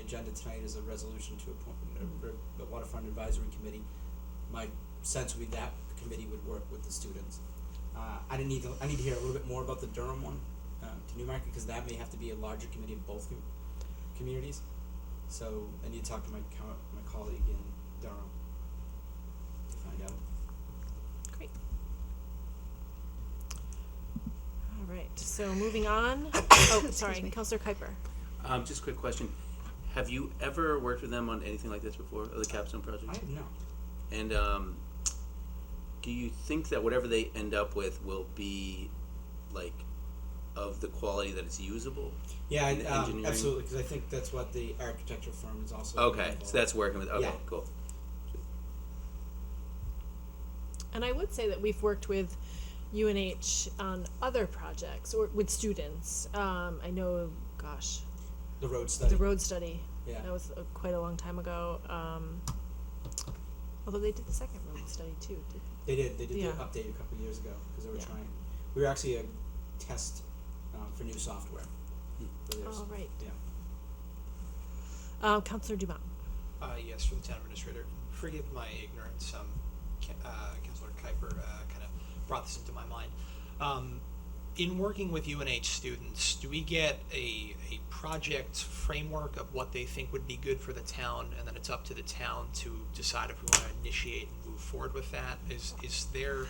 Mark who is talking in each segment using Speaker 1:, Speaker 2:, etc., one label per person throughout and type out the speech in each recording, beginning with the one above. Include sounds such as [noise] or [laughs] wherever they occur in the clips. Speaker 1: agenda tonight is a resolution to appoint a- a- the waterfront advisory committee. My sense would be that committee would work with the students. Uh, I didn't need to, I need to hear a little bit more about the Durham one, um, to Newmarket, because that may have to be a larger committee of both com- communities. So I need to talk to my co- my colleague in Durham to find out.
Speaker 2: Great. All right, so moving on, oh, sorry,
Speaker 3: me.
Speaker 2: Counselor Kuiper.
Speaker 4: Um, just a quick question. Have you ever worked with them on anything like this before, the capstone project?
Speaker 1: I have no,
Speaker 4: And um, do you think that whatever they end up with will be like of the quality that it's usable?
Speaker 1: yeah, I,
Speaker 4: And
Speaker 1: um,
Speaker 4: engineering?
Speaker 1: absolutely, because I think that's what the architecture firm is also.
Speaker 4: Okay,
Speaker 1: involved.
Speaker 4: so that's working with. Okay,
Speaker 1: Yeah.
Speaker 4: cool.
Speaker 2: And I would say that we've worked with UNH on other projects or with students. Um, I know, gosh,
Speaker 1: the road study.
Speaker 2: the road study,
Speaker 1: Yeah.
Speaker 2: that was uh, quite a long time ago. Um, although they did the second road study too, did
Speaker 1: They did. They did
Speaker 2: Yeah.
Speaker 1: the update a couple of years ago because they were
Speaker 2: Yeah.
Speaker 1: trying. We were actually a test um, for new software. for theirs.
Speaker 2: Oh, right.
Speaker 1: Yeah.
Speaker 2: Um, Counselor Dumont.
Speaker 5: Uh, yes, for the town administrator. Forgive my ignorance. Um, Ca- uh, Councilor Kuiper uh, kind of brought this into my mind. Um, in working with UNH students, do we get a, a project framework of what they think would be good for the town, and then it's up to the town to decide if we want to initiate and move forward with that? Is is their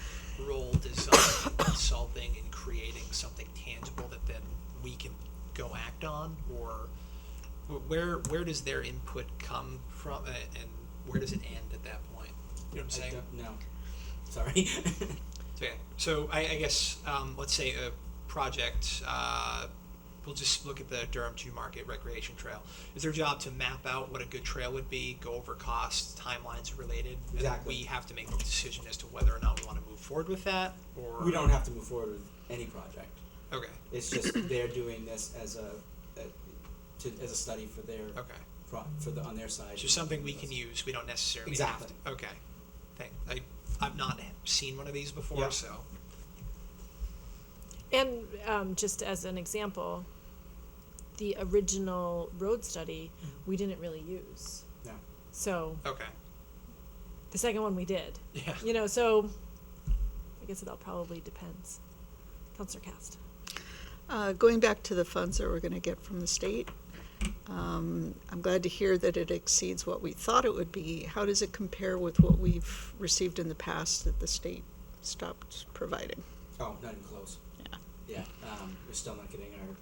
Speaker 5: role design, consulting, and creating something tangible that then we can go act on, or wh- where where does their input come from, uh, and where does it end at that point? You know what I'm
Speaker 1: I
Speaker 5: saying?
Speaker 1: don't know. Sorry. [laughs]
Speaker 5: So, yeah. so I, I guess um, let's say a project. Uh, we'll just look at the Durham to Market Recreation Trail. Is their job to map out what a good trail would be, go over costs, timelines related, and then
Speaker 1: Exactly.
Speaker 5: we have to make a decision as to whether or not we want to move forward with that, or
Speaker 1: we don't have to move forward with any project.
Speaker 5: Okay,
Speaker 1: It's
Speaker 2: [coughs]
Speaker 1: just they're doing this as a, a to, as a study for their
Speaker 5: okay.
Speaker 1: pro, for the on their side.
Speaker 5: So something we can use. We don't necessarily
Speaker 1: Exactly.
Speaker 5: have to. Okay, thank. I, I've not seen one of these before,
Speaker 1: Yeah.
Speaker 5: so
Speaker 2: And um, just as an example, the original road study we didn't really use.
Speaker 1: Yeah.
Speaker 2: So
Speaker 5: okay. [laughs]
Speaker 2: the second one we did.
Speaker 5: Yeah.
Speaker 2: You know, so I guess it all probably depends. Counselor Cast.
Speaker 3: Uh, Going back to the funds that we're going to get from the state, um, I'm glad to hear that it exceeds what we thought it would be. How does it compare with what we've received in the past that the state stopped providing?
Speaker 1: Oh, not even close.
Speaker 3: Yeah.
Speaker 1: Yeah. Um, we're still not getting our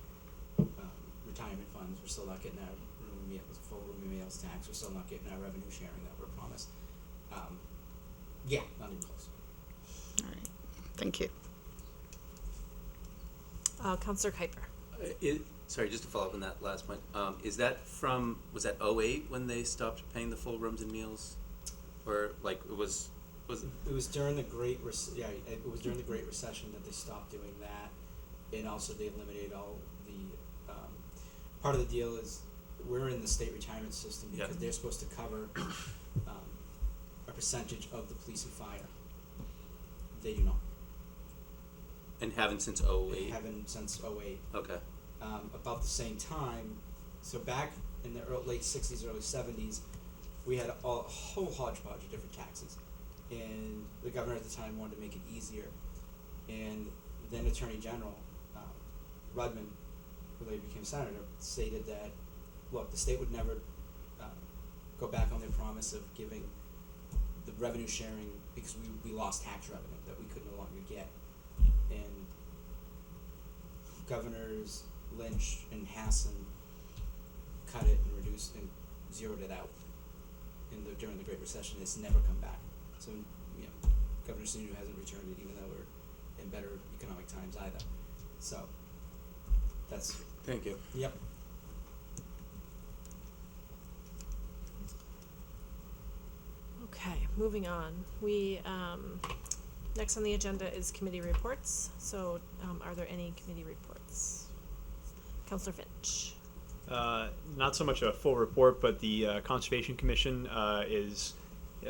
Speaker 1: um, retirement funds. We're still not getting our room meals, full room meals tax. We're still not getting our revenue sharing that we're promised. Um, yeah, not even close.
Speaker 3: All right, thank you.
Speaker 2: Uh, Counselor Kuiper.
Speaker 4: Uh, It, sorry, just to follow up on that last point. Um, is that from was that 08 when they stopped paying the full rooms and meals, or like it was was it,
Speaker 1: It was during the Great Rece- yeah, it was during the Great Recession that they stopped doing that, and also they eliminated all the. Um, part of the deal is we're in the state retirement system
Speaker 4: Yeah.
Speaker 1: because they're supposed to cover um, a percentage of the police and fire. They do not.
Speaker 4: and haven't since
Speaker 1: They
Speaker 4: 08?
Speaker 1: haven't since 08.
Speaker 4: Okay.
Speaker 1: um, about the same time. So back in the early, late '60s, early '70s, we had all, a whole hodgepodge of different taxes, and the governor at the time wanted to make it easier. And then Attorney General um, Rudman, who later became senator, stated that look, the state would never um, go back on their promise of giving the revenue sharing because we, we lost tax revenue that we could no longer get. And governors Lynch and Hassan cut it and reduced and zeroed it out in the, during the Great Recession. It's never come back. So, you know, Governor Sununu hasn't returned it, even though we're in better economic times either. So, that's,
Speaker 4: Thank you.
Speaker 1: yep.
Speaker 2: Okay, moving on. We um, next on the agenda is committee reports. So, um, are there any committee reports? Counselor Finch.
Speaker 6: Uh, not so much a full report, but the uh, Conservation Commission uh, is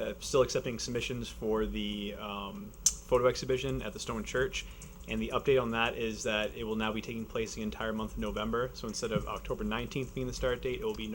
Speaker 6: uh, still accepting submissions for the um, photo exhibition at the Stone Church. And the update on that is that it will now be taking place the entire month of November. So instead of October 19th being the start date, it will be